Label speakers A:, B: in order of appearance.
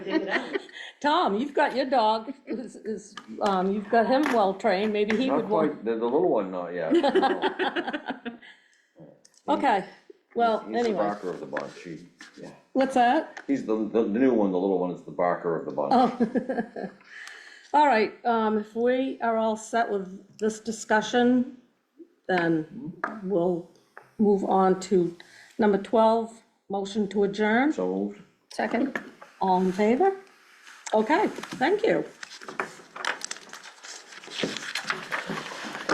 A: Dig it out.
B: Tom, you've got your dog, is, is, um, you've got him well-trained, maybe he would
C: Not
B: want.
C: quite, the, the little one, not yet.
B: Okay, well,
C: He's the
B: anyway,
C: barker of the bunch, he, yeah.
B: what's that?
C: He's the, the new one, the little one is the barker of the bunch.
B: Oh. All right, um, if we are all set with this discussion, then we'll move on to number twelve, motion to adjourn.
C: So moved.
B: Second. All in favor? Okay, thank you.